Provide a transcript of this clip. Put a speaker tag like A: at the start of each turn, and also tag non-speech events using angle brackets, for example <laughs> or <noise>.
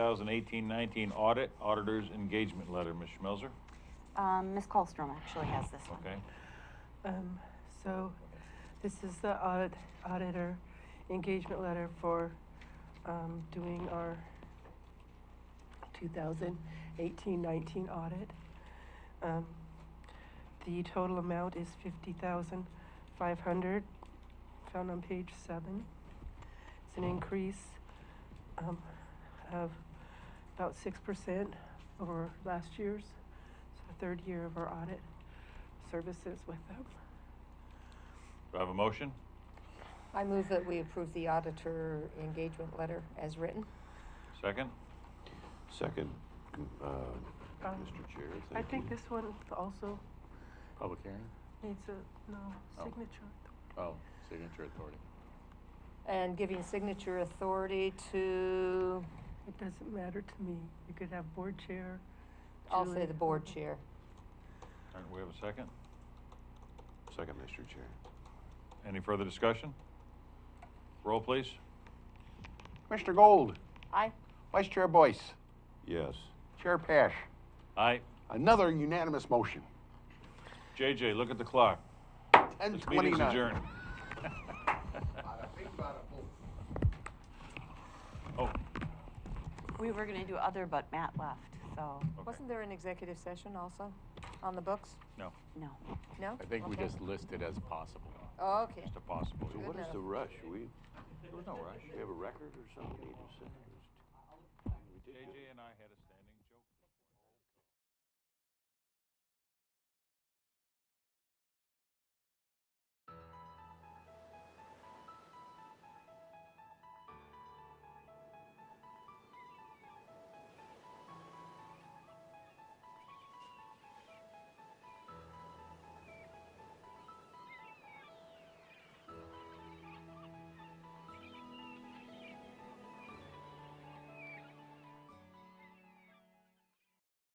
A: 2018-19 audit, auditor's engagement letter, Ms. Schmelzer,
B: Um, Ms. Colstrom actually has this one.
A: okay?
C: Um, so, this is the audit, auditor engagement letter for, um, doing our 2018-19 audit. Um, the total amount is fifty thousand five hundred, found on page seven. It's an increase, um, of about six percent over last year's, so the third year of our audit services with them.
A: Do I have a motion?
D: I move that we approve the auditor engagement letter as written.
A: Second?
E: Second, uh,
C: Um,
E: Mr. Chair, thank you.
C: I think this one also
F: Public hearing?
C: needs a, no,
F: Oh.
C: signature.
F: Oh, signature authority.
D: And giving signature authority to,
C: It doesn't matter to me. You could have board chair.
D: I'll say
C: Julie,
D: the board
C: whoever.
D: chair.
A: All right, we have a second?
E: Second, Mr. Chair.
A: Any further discussion? Roll, please.
G: Mr. Gold,
D: Aye.
G: Vice Chair Boyce,
E: Yes.
G: Chair Pash,
A: Aye.
G: another unanimous motion.
A: JJ, look at the clock.
G: Ten
A: This meeting's
G: twenty-nine. <laughs>
A: adjourned. <laughs> Oh,
B: We were gonna do other, but Matt left, so,
A: okay,
D: Wasn't there an executive session also on the books?
A: no,
B: no.
D: No?
F: I think we
D: Okay.
F: just list it as possible.
D: Oh, Okay.
A: just a possible.
E: So what is
D: enough.
E: the rush? We,
A: There was no rush.
E: we have a record or something we need to set?